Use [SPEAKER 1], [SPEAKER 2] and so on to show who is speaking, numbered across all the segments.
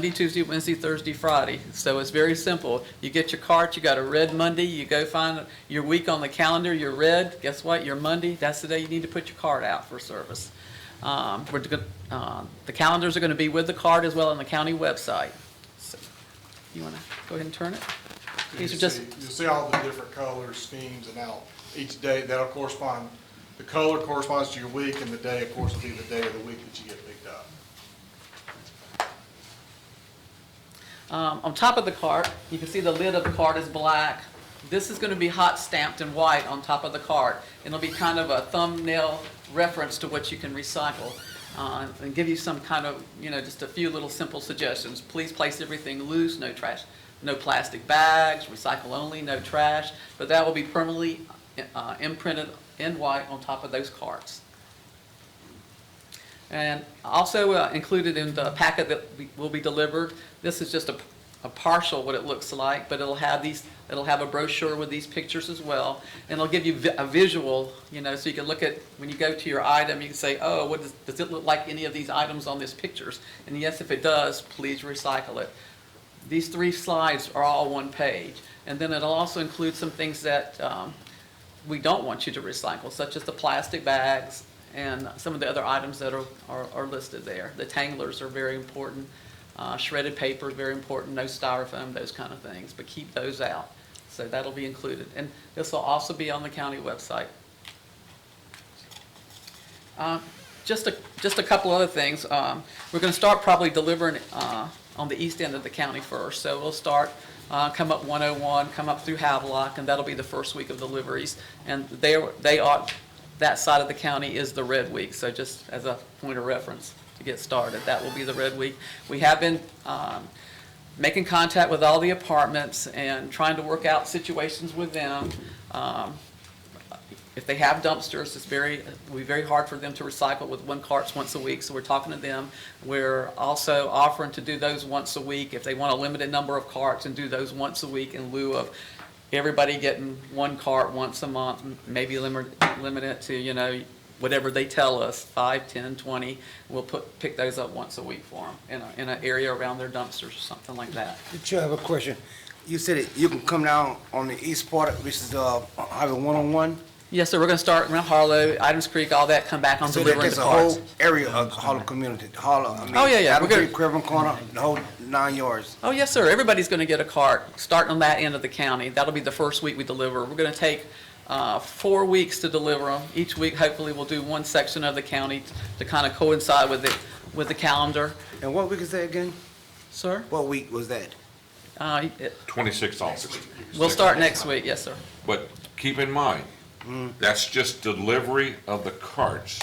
[SPEAKER 1] Monday, Tuesday, Wednesday, Thursday, Friday. So it's very simple. You get your cart, you got a red Monday, you go find your week on the calendar, you're red, guess what? Your Monday, that's the day you need to put your cart out for service. Um, we're gonna, uh, the calendars are gonna be with the cart as well on the county website. So, You wanna go ahead and turn it? These are
[SPEAKER 2] You'll
[SPEAKER 1] just-
[SPEAKER 2] see- You'll see all the different colors, schemes, and how each day, that'll correspond, the color corresponds to your week, and the day, of course, will be the day of the week that you get picked up.
[SPEAKER 1] Um, on top of the cart, you can see the lid of the cart is black. This is gonna be hot stamped in white on top of the cart. It'll be kind of a thumbnail reference to what you can recycle. Uh, and give you some kind of, you know, just a few little simple suggestions. Please place everything loose, no trash, no plastic bags, recycle only, no trash. But that will be permanently uh, imprinted in white on top of those carts. And also uh, included in the packet that we- will be delivered, this is just a a partial what it looks like, but it'll have these, it'll have a brochure with these pictures as well. And it'll give you vi- a visual, you know, so you can look at, when you go to your item, you can say, oh, what does, does it look like any of these items on these pictures? And yes, if it does, please recycle it. These three slides are all one page. And then it'll also include some things that um, we don't want you to recycle, such as the plastic bags and some of the other items that are, are, are listed there. The tanglers are very important, uh, shredded paper is very important, no styrofoam, those kind of things, but keep those out. So that'll be included, and this will also be on the county website. Uh, Just a, just a couple other things. Um, We're going to start probably delivering uh, on the east end of the county first. So we'll start, uh, come up 101, come up through Havelock, and that'll be the first week of deliveries. And they, they are, that side of the county is the red week, so just as a point of reference to get started, that will be the red week. We have been um, making contact with all the apartments and trying to work out situations with them. Um, if they have dumpsters, it's very, it will be very hard for them to recycle with one carts once a week, so we're talking to them. We're also offering to do those once a week, if they want a limited number of carts, and do those once a week in lieu of everybody getting one cart once a month, m- maybe limit, limit it to, you know, whatever they tell us, five, ten, twenty, we'll put, pick those up once a week for them, in a, in an area around their dumpsters or something like that.
[SPEAKER 3] Chair, I have a question. You said that you can come down on the east part, which is uh, Highway 101?
[SPEAKER 1] Yes, so we're gonna start around Harlow, Adams Creek, all that, come back on
[SPEAKER 3] So that
[SPEAKER 1] delivering
[SPEAKER 3] there's
[SPEAKER 1] the
[SPEAKER 3] a
[SPEAKER 1] carts.
[SPEAKER 3] whole area of Harlem community, Harlem, I mean.
[SPEAKER 1] Oh, yeah, yeah,
[SPEAKER 3] Adam
[SPEAKER 1] we're gonna-
[SPEAKER 3] Creek, Criven Corner, the whole nine yards.
[SPEAKER 1] Oh, yes, sir. Everybody's going to get a cart, starting on that end of the county. That'll be the first week we deliver. We're going to take uh, four weeks to deliver them. Each week, hopefully, we'll do one section of the county to kind of coincide with the, with the calendar.
[SPEAKER 3] And what week is that again?
[SPEAKER 1] Sir?
[SPEAKER 3] What week was that?
[SPEAKER 1] Uh, it-
[SPEAKER 4] 26th officer.
[SPEAKER 1] We'll start next week, yes, sir.
[SPEAKER 4] But keep in mind, that's just delivery of the carts.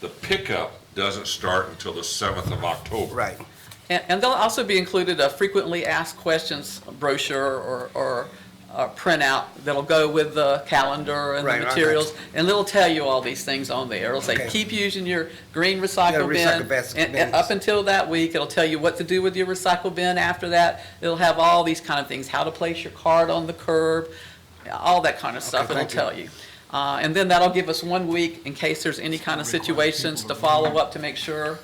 [SPEAKER 4] The pickup doesn't start until the 7th of October.
[SPEAKER 3] Right.
[SPEAKER 1] And, and there'll also be included a frequently asked questions brochure or, or uh, printout that'll go with the calendar and
[SPEAKER 3] Right,
[SPEAKER 1] the
[SPEAKER 3] right,
[SPEAKER 1] materials. And it'll tell you all these things on there. It'll say,
[SPEAKER 3] Okay.
[SPEAKER 1] keep using your green
[SPEAKER 3] Yeah,
[SPEAKER 1] recycle
[SPEAKER 3] recycle
[SPEAKER 1] bin.
[SPEAKER 3] basket
[SPEAKER 1] And- and
[SPEAKER 3] bins.
[SPEAKER 1] Up until that week, it'll tell you what to do with your recycle bin after that. It'll have all these kind of things, how to place your card on the curb, all that kind of stuff it'll
[SPEAKER 3] thank you.
[SPEAKER 1] tell you. Uh, And then that'll give us one week in case there's any kind of situations to follow up to make sure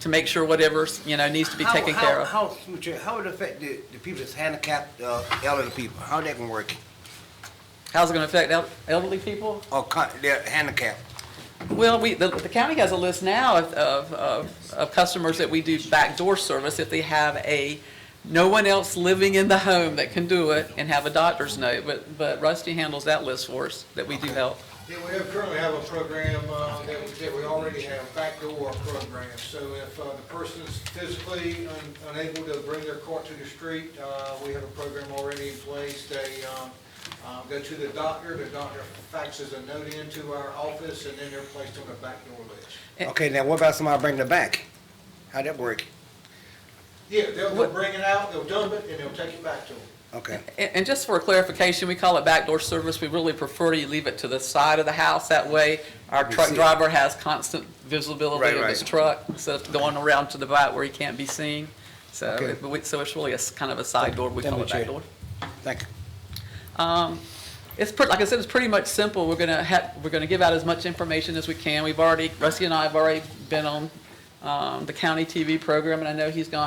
[SPEAKER 1] to make sure whatever's, you know, needs to be
[SPEAKER 3] How-
[SPEAKER 1] taken
[SPEAKER 3] how-
[SPEAKER 1] care of.
[SPEAKER 3] How, Mr. Chair, how would it affect the, the people that's handicapped, uh, elderly people? How that can work?
[SPEAKER 1] How's it gonna affect el- elderly people?
[SPEAKER 3] Or con- they're handicapped?
[SPEAKER 1] Well, we, the, the county has a list now of, of, of, of customers that we do backdoor service if they have a, no one else living in the home that can do it and have a doctor's note, but, but Rusty handles that list for us, that we do help.
[SPEAKER 5] Yeah, we have- currently have a program uh, that we, that we already have, backdoor program. So if uh, the person's physically un- unable to bring their cart to the street, uh, we have a program already in place. They um, uh, go to the doctor, the doctor faxes a note into our office, and then they're placed on the backdoor list.
[SPEAKER 1] Eh.
[SPEAKER 3] Okay, now what about somebody bringing it back? How that work?
[SPEAKER 5] Yeah, they'll they'll
[SPEAKER 1] What-
[SPEAKER 5] bring it out, they'll dump it, and they'll take it back to them.
[SPEAKER 3] Okay.
[SPEAKER 1] And, and just for clarification, we call it backdoor service. We really prefer you leave it to the side of the house. That way, our truck
[SPEAKER 3] see it.
[SPEAKER 1] driver has constant visibility
[SPEAKER 3] Right,
[SPEAKER 1] of his
[SPEAKER 3] right.
[SPEAKER 1] truck instead of going around to the back where he can't be seen. So,
[SPEAKER 3] Okay.
[SPEAKER 1] it- but we- so it's really a s- kind of a side door. We
[SPEAKER 3] Thank
[SPEAKER 1] call
[SPEAKER 3] you,
[SPEAKER 1] it
[SPEAKER 3] Chair.
[SPEAKER 1] backdoor.
[SPEAKER 3] Thank you.
[SPEAKER 1] It's pretty, like I said, it's pretty much simple. We're gonna have, we're gonna give out as much information as we can. We've already, Rusty and I have already been on, um, the county TV program, and I know he's gone